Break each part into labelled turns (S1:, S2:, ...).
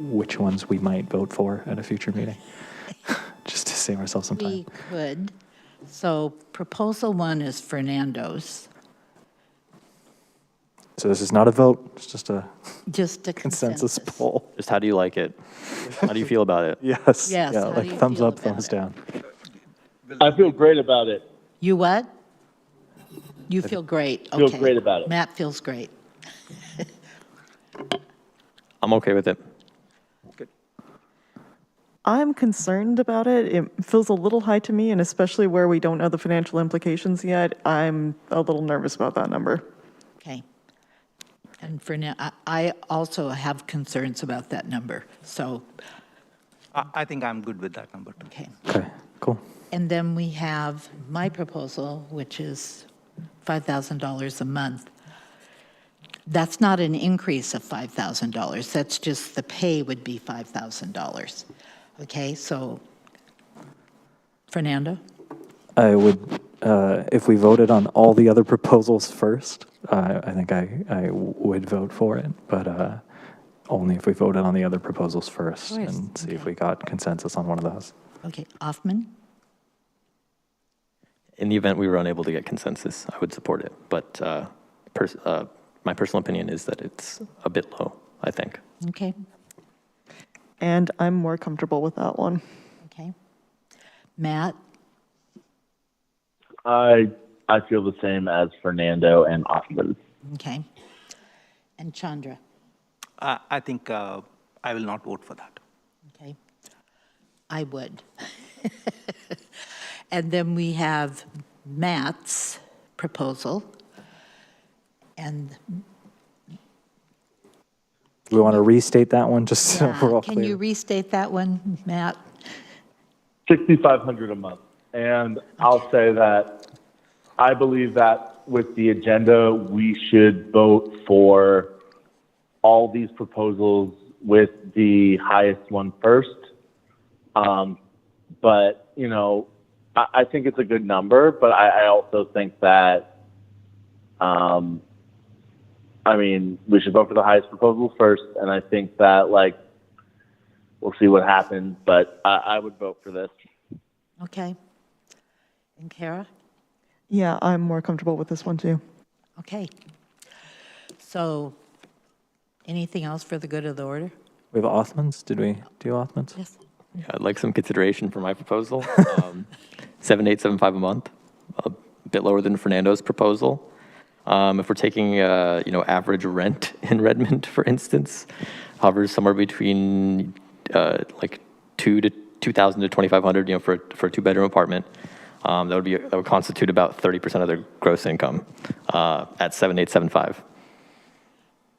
S1: which ones we might vote for at a future meeting, just to save ourselves some time.
S2: We could. So proposal one is Fernando's,
S1: So this is not a vote, it's just a
S2: just a
S1: consensus
S2: consensus.
S1: poll.
S3: Just how do you like it? How do you feel about it?
S1: Yes.
S2: Yes,
S1: Yeah,
S2: how do
S1: like
S2: you
S1: thumbs
S2: feel
S1: up,
S2: about
S1: thumbs
S2: it?
S1: down.
S4: I feel great about it.
S2: You what? You feel great,
S4: Feel
S2: okay.
S4: great about it.
S2: Matt feels great.
S3: I'm okay with it.
S5: I'm concerned about it. It feels a little high to me, and especially where we don't know the financial implications yet, I'm a little nervous about that number.
S2: Okay. And for now, I- I also have concerns about that number, so,
S6: I, I think I'm good with that number too.
S2: okay.
S1: Okay, cool.
S2: And then we have my proposal, which is $5,000 a month. That's not an increase of $5,000, that's just the pay would be $5,000. Okay, so Fernando?
S1: I would, uh, if we voted on all the other proposals first, uh, I think I, I would vote for it, but uh, only if we voted on the other proposals first
S2: course,
S1: and see if we got consensus on one of those.
S2: Okay, Hoffman?
S3: In the event we were unable to get consensus, I would support it. But uh, pers- uh, my personal opinion is that it's a bit low, I think.
S2: Okay,
S5: And I'm more comfortable with that one.
S2: okay. Matt?
S4: I I feel the same as Fernando and Austin.
S2: Okay. And Chandra?
S6: I, I think uh, I will not vote for that.
S2: Okay. I would. And then we have Matt's proposal. And
S1: Do we want to restate that one, just so we're all
S2: uh,
S1: clear?
S2: can you restate that one, Matt?
S4: Sixty five hundred a month. And I'll say that I believe that with the agenda we should vote for all these proposals with the highest one first. Um, but you know, I, I think it's a good number, but I, I also think that um, I mean, we should vote for the highest proposal first, and I think that like we'll see what happens, but I, I would vote for this.
S2: Okay. And Kara?
S5: Yeah, I'm more comfortable with this one too.
S2: Okay. So anything else for the good of the order?
S1: We have Othmans? Did we do Othmans?
S2: Yes.
S3: Yeah, I'd like some consideration for my proposal. Um, 7875 a month, a bit lower than Fernando's proposal. Um, If we're taking, uh, you know, average rent in Redmond, for instance, hovers somewhere between uh, like 2 to 2,000 to 2,500, you know, for, for a two-bedroom apartment. Um, That would be, that would constitute about 30% of their gross income uh, at 7875.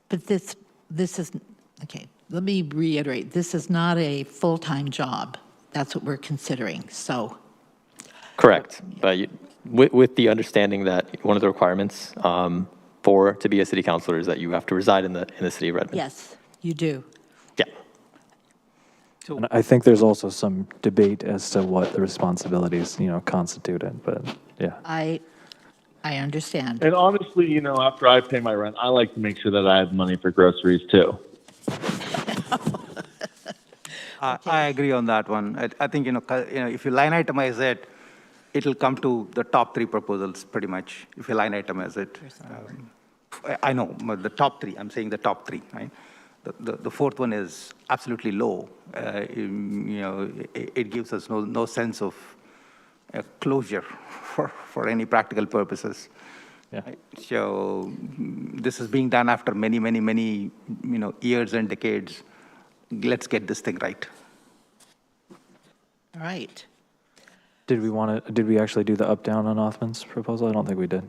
S2: But this, this is, okay, let me reiterate, this is not a full-time job. That's what we're considering, so.
S3: Correct, but you- with, with the understanding that one of the requirements um, for, to be a city councillor is that you have to reside in the, in the city of Redmond.
S2: Yes, you do.
S3: Yeah,
S1: And I think there's also some debate as to what the responsibilities, you know, constitute it, but, yeah.
S2: I, I understand.
S4: And honestly, you know, after I pay my rent, I like to make sure that I have money for groceries too.
S6: I, I agree on that one. I, I think, you know, cu- you know, if you line itemize it, it'll come to the top three proposals pretty much, if you line itemize it. Um, I- I know, but the top three, I'm saying the top three, right? The, the, the fourth one is absolutely low. Uh, im- you know, it, it gives us no, no sense of uh, closure for, for any practical purposes.
S1: Yeah.
S6: right? So mm, this is being done after many, many, many, you know, years and decades. Let's get this thing right.
S2: All right.
S1: Did we want to, did we actually do the up-down on Othman's proposal? I don't think we did.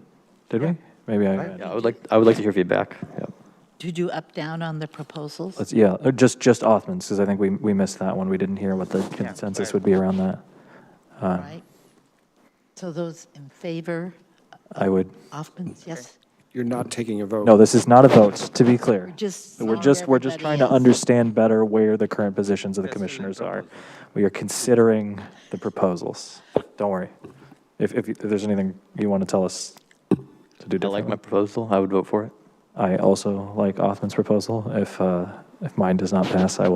S1: Did we? Maybe I,
S3: yeah, I would like, I would like to hear feedback, yeah.
S2: Did you up, down on the proposals?
S1: let's, yeah, or just, just Othman's, because I think we, we missed that one. We didn't hear what the consensus would be around that.
S2: All right. So those in favor,
S1: I would,
S2: Offman's, yes?
S7: You're not taking a vote.
S1: no, this is not a vote, to be clear.
S2: Just.
S1: We're just, we're just trying to understand better where the current positions of the
S6: Yes, the
S1: commissioners are. We are considering the proposals. Don't worry. If, if you- if there's anything you want to tell us to do
S3: I like my
S1: differently.
S3: proposal, I would vote for it.
S1: I also like Othman's proposal. If, uh, if mine does not pass, I will